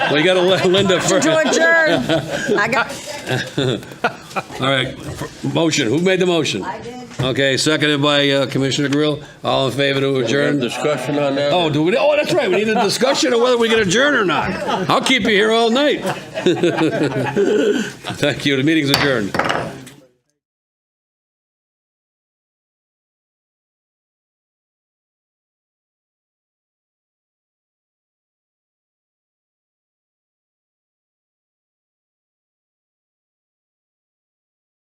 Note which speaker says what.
Speaker 1: We got to Linda first.
Speaker 2: To adjourn. I got,
Speaker 1: All right, motion, who made the motion? I did. Okay, seconded by uh, Commissioner Grill, all in favor to adjourn?
Speaker 3: Discussion on that?
Speaker 1: Oh, do we, oh, that's right, we need a discussion of whether we can adjourn or not. I'll keep you here all night. Thank you, the meeting's adjourned.